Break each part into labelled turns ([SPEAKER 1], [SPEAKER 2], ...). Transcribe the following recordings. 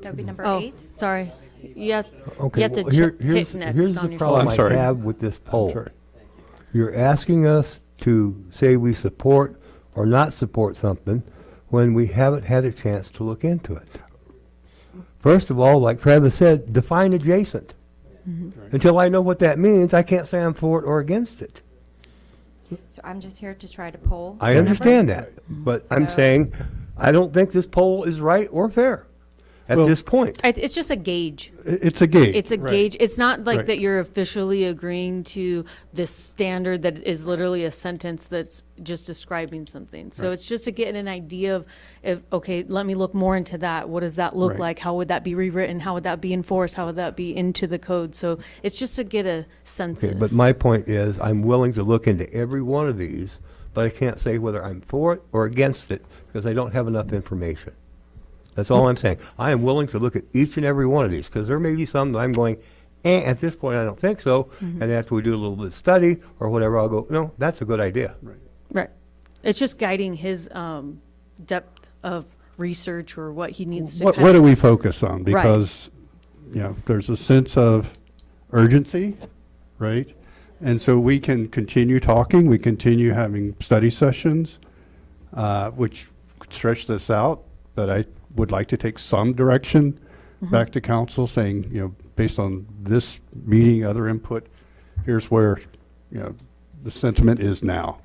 [SPEAKER 1] That would be number
[SPEAKER 2] Oh,
[SPEAKER 1] eight.
[SPEAKER 2] sorry. You have,
[SPEAKER 3] Okay,
[SPEAKER 2] you have to
[SPEAKER 3] well, here-
[SPEAKER 2] ch-
[SPEAKER 3] here's-
[SPEAKER 2] hit next
[SPEAKER 3] here's
[SPEAKER 2] on
[SPEAKER 3] the
[SPEAKER 2] your
[SPEAKER 3] problem
[SPEAKER 4] I'm
[SPEAKER 3] I
[SPEAKER 4] sorry. Oh,
[SPEAKER 3] have with this poll.
[SPEAKER 4] Sorry.
[SPEAKER 3] You're asking us to say we support or not support something when we haven't had a chance to look into it. First of all, like Travis said, define adjacent.
[SPEAKER 2] Mm-hmm.
[SPEAKER 3] Until I know what that means, I can't say I'm for it or against it.
[SPEAKER 1] So I'm just here to try to poll.
[SPEAKER 3] I
[SPEAKER 1] the
[SPEAKER 3] understand
[SPEAKER 1] numbers.
[SPEAKER 3] that, but I'm
[SPEAKER 1] So-
[SPEAKER 3] saying, I don't think this poll is right or fair at
[SPEAKER 4] Well-
[SPEAKER 3] this point.
[SPEAKER 2] It- It's just a gauge.
[SPEAKER 4] I- It's a gate.
[SPEAKER 2] It's a gauge. It's not like
[SPEAKER 4] Right.
[SPEAKER 2] that you're officially agreeing to this standard that is literally a sentence that's just describing something. So it's just to get an idea of, if, okay, let me look more into that. What does that look
[SPEAKER 4] Right.
[SPEAKER 2] like? How would that be rewritten? How would that be enforced? How would that be into the code? So it's just to get a
[SPEAKER 3] Okay,
[SPEAKER 2] census.
[SPEAKER 3] but my point is, I'm willing to look into every one of these, but I can't say whether I'm for it or against it, because I don't have enough information. That's all I'm saying. I am willing to look at each and every one of these, because there may be some that I'm going, eh, at this point, I don't think so,
[SPEAKER 2] Mm-hmm.
[SPEAKER 3] and after we do a little bit of study or whatever, I'll go, no, that's a good idea.
[SPEAKER 2] Right. It's just guiding his um, depth of research or what he needs to
[SPEAKER 4] What,
[SPEAKER 2] kind
[SPEAKER 4] what
[SPEAKER 2] of-
[SPEAKER 4] do we focus on? Because, you know, there's a sense of urgency, right? And so we can continue talking, we continue having study sessions, uh, which could stretch this out, but I would like to take some direction back to council saying, you know, based on this meeting, other input, here's where, you know, the sentiment is now.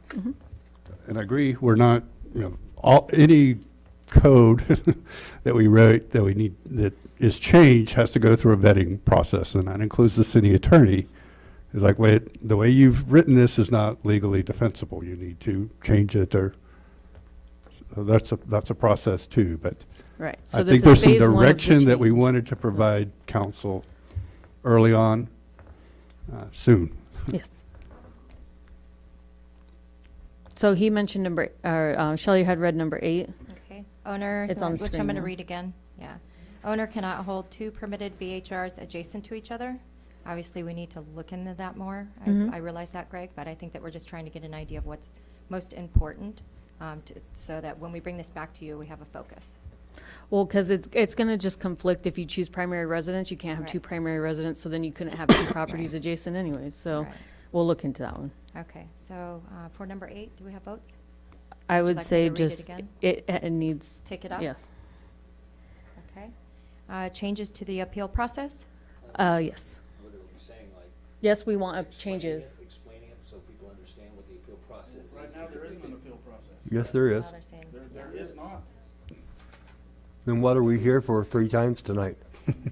[SPEAKER 4] And I agree, we're not, you know, all, any code that we wrote, that we need, that is changed, has to go through a vetting process, and that includes the city attorney. It's like, wait, the way you've written this is not legally defensible, you need to change it, or, so that's a, that's a process too, but
[SPEAKER 2] Right. So
[SPEAKER 4] I
[SPEAKER 2] this
[SPEAKER 4] think
[SPEAKER 2] is
[SPEAKER 4] there's some
[SPEAKER 2] phase one of the
[SPEAKER 4] direction that we
[SPEAKER 2] change.
[SPEAKER 4] wanted to provide council early on, uh, soon.
[SPEAKER 2] Yes. So he mentioned number, or uh, Shelley had read number eight.
[SPEAKER 1] Okay. Owner,
[SPEAKER 2] It's on the
[SPEAKER 1] which
[SPEAKER 2] screen
[SPEAKER 1] I'm going to
[SPEAKER 2] now.
[SPEAKER 1] read again. Yeah. Owner cannot hold two permitted VHRs adjacent to each other. Obviously, we need to look into that more.
[SPEAKER 2] Mhm.
[SPEAKER 1] I, I realize that, Greg, but I think that we're just trying to get an idea of what's most important um, to, so that when we bring this back to you, we have a focus.
[SPEAKER 2] Well, because it's, it's going to just conflict if you choose primary residence. You can't have two
[SPEAKER 1] Right.
[SPEAKER 2] primary residents, so then you couldn't have two properties adjacent anyway. So
[SPEAKER 1] Right.
[SPEAKER 2] we'll look into that one.
[SPEAKER 1] Okay. So uh, for number eight, do we have votes? Would
[SPEAKER 2] I
[SPEAKER 1] you
[SPEAKER 2] would
[SPEAKER 1] like me
[SPEAKER 2] say
[SPEAKER 1] to read it
[SPEAKER 2] just,
[SPEAKER 1] again?
[SPEAKER 2] it, it needs,
[SPEAKER 1] Take it up?
[SPEAKER 2] yes.
[SPEAKER 1] Okay. Uh, changes to the appeal process?
[SPEAKER 2] Uh, yes.
[SPEAKER 5] What are you saying, like?
[SPEAKER 2] Yes, we want up
[SPEAKER 5] explaining it-
[SPEAKER 2] changes.
[SPEAKER 5] Explaining it so people understand what the appeal process is.
[SPEAKER 6] Right now, there isn't an appeal process.
[SPEAKER 3] Yes, there is.
[SPEAKER 1] Well, they're saying-
[SPEAKER 6] There, there is not.
[SPEAKER 3] Then what are we here for three times tonight?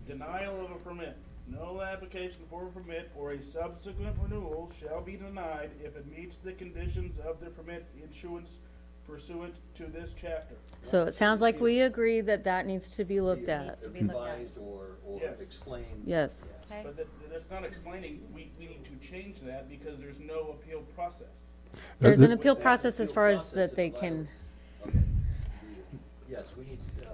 [SPEAKER 6] Denial of a permit. No application for a permit or a subsequent renewal shall be denied if it meets the conditions of the permit issuance pursuant to this chapter.
[SPEAKER 2] So it sounds like we agree that that needs to be looked
[SPEAKER 1] It
[SPEAKER 2] at.
[SPEAKER 1] needs to be looked at.
[SPEAKER 5] Advised or, or
[SPEAKER 6] Yes.
[SPEAKER 5] explained.
[SPEAKER 2] Yes.
[SPEAKER 1] Okay.
[SPEAKER 6] But that, that's not explaining, we, we need to change that because there's no appeal process.
[SPEAKER 2] There's
[SPEAKER 4] the-
[SPEAKER 2] an appeal
[SPEAKER 5] That's the
[SPEAKER 2] process as
[SPEAKER 5] appeal
[SPEAKER 2] far as
[SPEAKER 5] process
[SPEAKER 2] that
[SPEAKER 5] in
[SPEAKER 2] they
[SPEAKER 5] the
[SPEAKER 2] can,
[SPEAKER 5] Okay. Yes, we need, uh,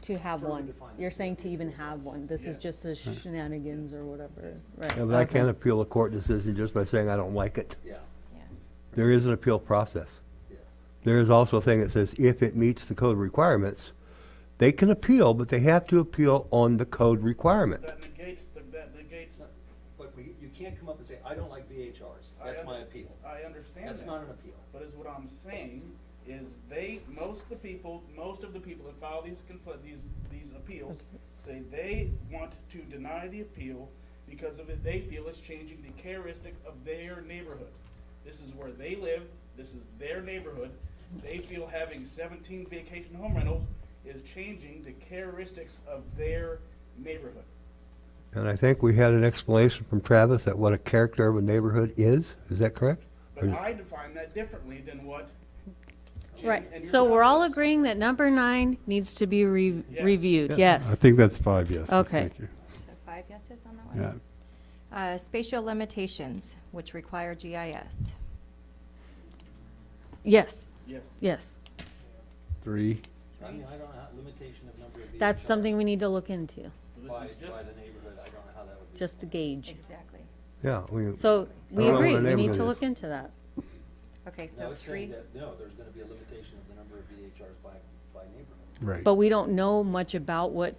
[SPEAKER 5] to.
[SPEAKER 2] to have
[SPEAKER 5] Further
[SPEAKER 2] one.
[SPEAKER 5] define
[SPEAKER 2] You're
[SPEAKER 5] the
[SPEAKER 2] saying to even have one. This is
[SPEAKER 6] Yeah.
[SPEAKER 2] just a shenanigans or whatever, right?
[SPEAKER 3] Yeah, but I
[SPEAKER 2] Okay.
[SPEAKER 3] can't appeal a court decision just by saying I don't like it.
[SPEAKER 5] Yeah,
[SPEAKER 1] Yeah.
[SPEAKER 3] There is an appeal process.
[SPEAKER 5] yes.
[SPEAKER 3] There is also a thing that says if it meets the code requirements, they can appeal, but they have to appeal on the code requirement.
[SPEAKER 6] That negates, the- that negates,
[SPEAKER 5] But we, you can't come up and say, I don't like VHRs,
[SPEAKER 6] I
[SPEAKER 5] that's
[SPEAKER 6] un-
[SPEAKER 5] my appeal.
[SPEAKER 6] I understand that.
[SPEAKER 5] That's not an appeal.
[SPEAKER 6] But is what I'm saying is they, most of the people, most of the people that file these compl- these, these appeals say they want to deny the appeal because of it, they feel it's changing the characteristic of their neighborhood. This is where they live, this is their neighborhood, they feel having seventeen vacation home rentals is changing the characteristics of their neighborhood.
[SPEAKER 3] And I think we had an explanation from Travis that what a character of a neighborhood is. Is that correct?
[SPEAKER 6] But I define that differently than what. Jim and
[SPEAKER 2] Right,
[SPEAKER 6] your
[SPEAKER 2] so we're all
[SPEAKER 6] colleagues-
[SPEAKER 2] agreeing that number nine needs to be re-
[SPEAKER 6] Yes.
[SPEAKER 2] reviewed,
[SPEAKER 4] I
[SPEAKER 2] yes.
[SPEAKER 4] think that's five yeses,
[SPEAKER 2] Okay.
[SPEAKER 4] thank you.
[SPEAKER 1] So five yeses on that one?
[SPEAKER 4] Yeah.
[SPEAKER 1] Uh, Spatial limitations, which require GIS.
[SPEAKER 2] Yes,
[SPEAKER 6] Yes.
[SPEAKER 2] yes.
[SPEAKER 4] Three.
[SPEAKER 5] I mean, I don't know, how- limitation of number of VHRs.
[SPEAKER 2] That's something we need to look into,
[SPEAKER 6] This
[SPEAKER 5] By,
[SPEAKER 6] is just-
[SPEAKER 5] by the neighborhood, I don't know how that would be.
[SPEAKER 2] just to gauge.
[SPEAKER 1] Exactly.
[SPEAKER 3] Yeah. we-
[SPEAKER 2] So we
[SPEAKER 3] I don't know
[SPEAKER 2] agree,
[SPEAKER 3] what
[SPEAKER 2] we
[SPEAKER 3] our
[SPEAKER 2] need
[SPEAKER 3] neighborhood
[SPEAKER 2] to
[SPEAKER 3] is.
[SPEAKER 2] look into that.
[SPEAKER 1] Okay,
[SPEAKER 5] No,
[SPEAKER 1] so
[SPEAKER 5] it's saying
[SPEAKER 1] three,
[SPEAKER 5] that, no, there's gonna be a limitation of the number of VHRs by, by neighborhood.
[SPEAKER 4] Right.
[SPEAKER 2] But we don't know much about what